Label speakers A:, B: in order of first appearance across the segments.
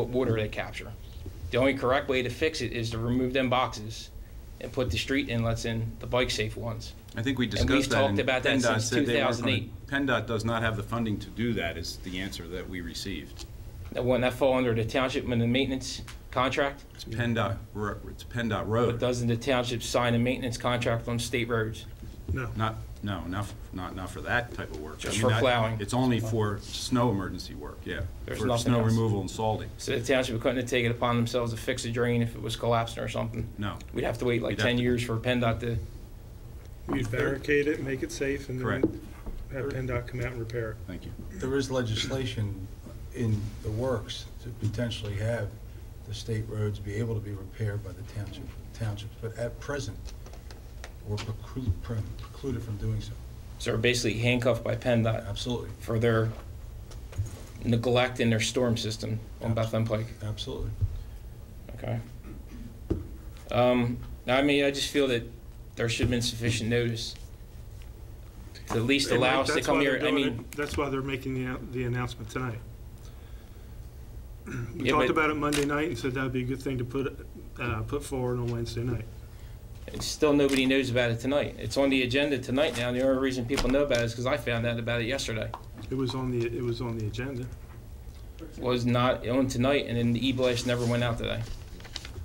A: what water they capture. The only correct way to fix it is to remove them boxes and put the street inlets in, the bike-safe ones.
B: I think we
A: we've
B: discussed that.
A: talked about that
B: PennDOT
A: since
B: said they weren't gonna-
A: 2008.
B: PennDOT does not have the funding to do that, is the answer that we received.
A: That wouldn't that fall under the township and the maintenance contract?
B: It's PennDOT, ro- it's PennDOT
A: But
B: Road,
A: doesn't the township sign a maintenance contract on state roads?
B: not, no, not, f- not, not for that type of work. I
A: Just
B: mean,
A: for
B: that-
A: plowing.
B: It's only for snow emergency work, yeah.
A: There's
B: For
A: nothing
B: snow
A: else.
B: removal and salting,
A: So the township couldn't have taken it upon themselves to fix a drain if it was collapsing or something?
B: no.
A: We'd have to wait like
B: We'd have
A: 10
B: to-
A: years for PennDOT to,
C: You'd barricade it, make it safe,
A: Mm-hmm.
C: and
B: Correct.
C: then have PennDOT come out and repair it.
B: Thank you.
D: There is legislation in the works to potentially have the state roads be able to be repaired by the township, townships, but at present, we're preclu- pre- precluded from doing so.
A: so they're basically handcuffed by PennDOT
D: Absolutely,
A: for their neglect in their storm system on Bethlehem Pike.
D: absolutely.
A: Okay. Um, I mean, I just feel that there should have been sufficient notice to at least
C: And
A: allow us to
C: that's
A: come
C: why they're
A: here. I
C: doing
A: mean,
C: it- That's why they're making the, an- the announcement tonight. We
A: Yeah,
C: talked
A: but-
C: about it Monday night and said that'd be a good thing to put, uh, put forward on Wednesday night.
A: it's still nobody knows about it tonight. It's on the agenda tonight now. The only reason people know about it is because I found out about it yesterday.
C: It was on the, it was on the agenda.
A: Was not on tonight, and then the e-blast never went out today.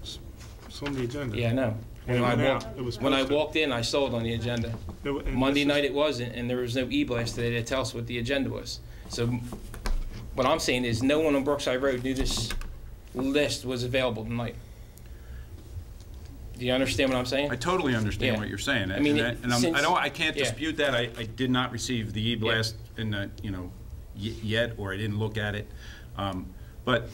C: It's on the agenda.
A: Yeah, I know. When
C: When
A: I
C: went
A: walked,
C: out, it was
A: when I
C: posted.
A: walked in, I saw it on the agenda.
C: It wa- and this
A: Monday
C: is-
A: night it wasn't, and there was no e-blast today to tell us what the agenda was. So what I'm saying is, no one on Brookside Road knew this list was available tonight. Do you understand what I'm
B: I
A: saying?
B: totally
A: Yeah.
B: understand what you're saying.
A: I mean,
B: and
A: it-
B: I- And I'm-
A: since-
B: I don't, I can't
A: yeah.
B: dispute that. I, I did not receive the e-blast in the, you know, y- yet, or I didn't look at it. Um, But,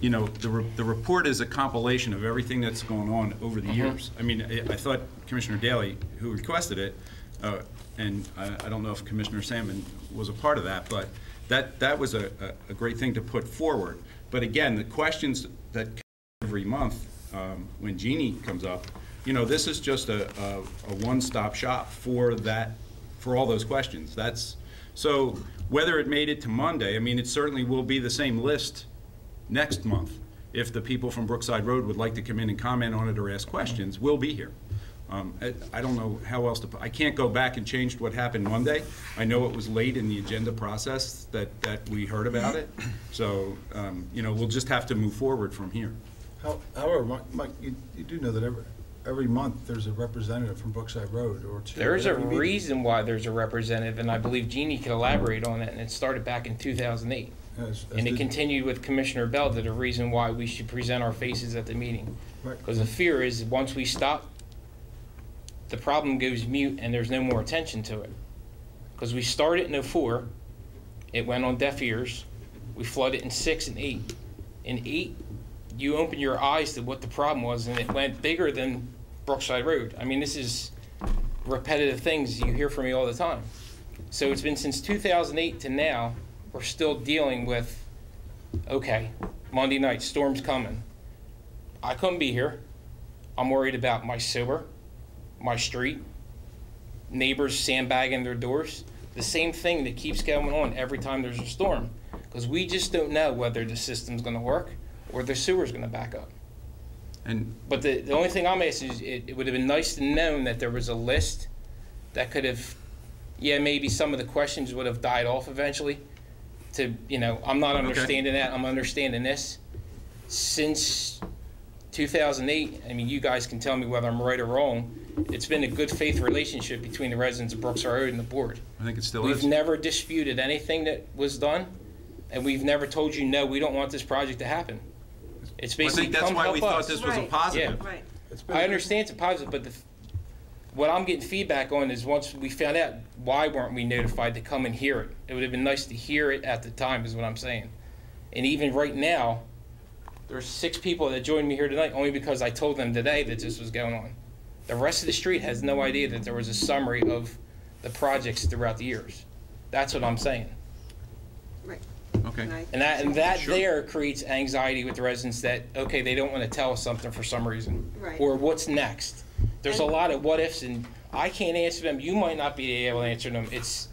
B: you know, the, re- the report is a compilation of everything that's gone on over
A: Mm-hmm.
B: the years. I mean, I I thought Commissioner Daley, who requested it, uh, and I I don't know if Commissioner Salmon was a part of that, but that, that was a, a- a great thing to put forward. But again, the questions that every month um, when Jeannie comes up, you know, this is just a, a, a one-stop shop for that, for all those questions. That's, so whether it made it to Monday, I mean, it certainly will be the same list next month. If the people from Brookside Road would like to come in and comment on it or ask questions, we'll be here. Um, I, I don't know how else to, pu- I can't go back and change what happened Monday. I know it was late in the agenda process that, that we heard about it. So, um, you know, we'll just have to move forward from here.
D: How- However, Mike- Mike, you, you do know that every, every month, there's a representative from Brookside Road or two.
A: There's a
D: at every meeting.
A: reason why there's a representative, and I believe Jeannie can elaborate on that, and it started back in 2008.
D: As- as
A: And it
D: did-
A: continued with Commissioner Bell, that the reason why we should present our faces at the meeting.
D: Right.
A: Because the fear is, once we stop, the problem goes mute and there's no more attention to it. Because we started in '04, it went on deaf ears, we flooded in six and eight. In eight, you opened your eyes to what the problem was, and it went bigger than Brookside Road. I mean, this is repetitive things you hear from me all the time. So it's been since 2008 to now, we're still dealing with, okay, Monday night, storm's coming. I couldn't be here. I'm worried about my sewer, my street, neighbors sandbagging their doors. The same thing that keeps going on every time there's a storm. Because we just don't know whether the system's going to work or the sewer's going to back up.
B: And
A: But the, the only thing I'm asking is, it, it would have been nice to known that there was a list that could have, yeah, maybe some of the questions would have died off eventually. To, you know, I'm not understanding that, I'm understanding this. Since 2008, I mean, you guys can tell me whether I'm right or wrong, it's been a good faith relationship between the residents of Brooks Road and the board.
B: I think it still
A: We've
B: is.
A: never disputed anything that was done, and we've never told you, no, we don't want this project to happen. It's
B: I
A: basically,
B: think that's
A: come
B: why we
A: help
B: thought
A: us.
B: this was a
E: Right.
B: positive.
E: Right.
D: It's been-
A: I understand it's a positive, but the, what I'm getting feedback on is once we found out, why weren't we notified to come and hear it? It would have been nice to hear it at the time, is what I'm saying. And even right now, there's six people that joined me here tonight only because I told them today that this was going on. The rest of the street has no idea that there was a summary of the projects throughout the years. That's what I'm saying.
E: Right. And
B: Okay.
E: I-
A: And that, and that
B: Sure.
A: there creates anxiety with the residents that, okay, they don't want to tell us something for some reason.
E: Right.
A: Or what's next? There's a
E: And-
A: lot of what ifs and I can't answer them, you might not be able to answer them. It's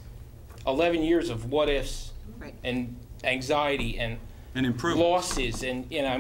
A: eleven years of what ifs
E: Right.
A: and anxiety and
B: and improve.
A: losses and, you know,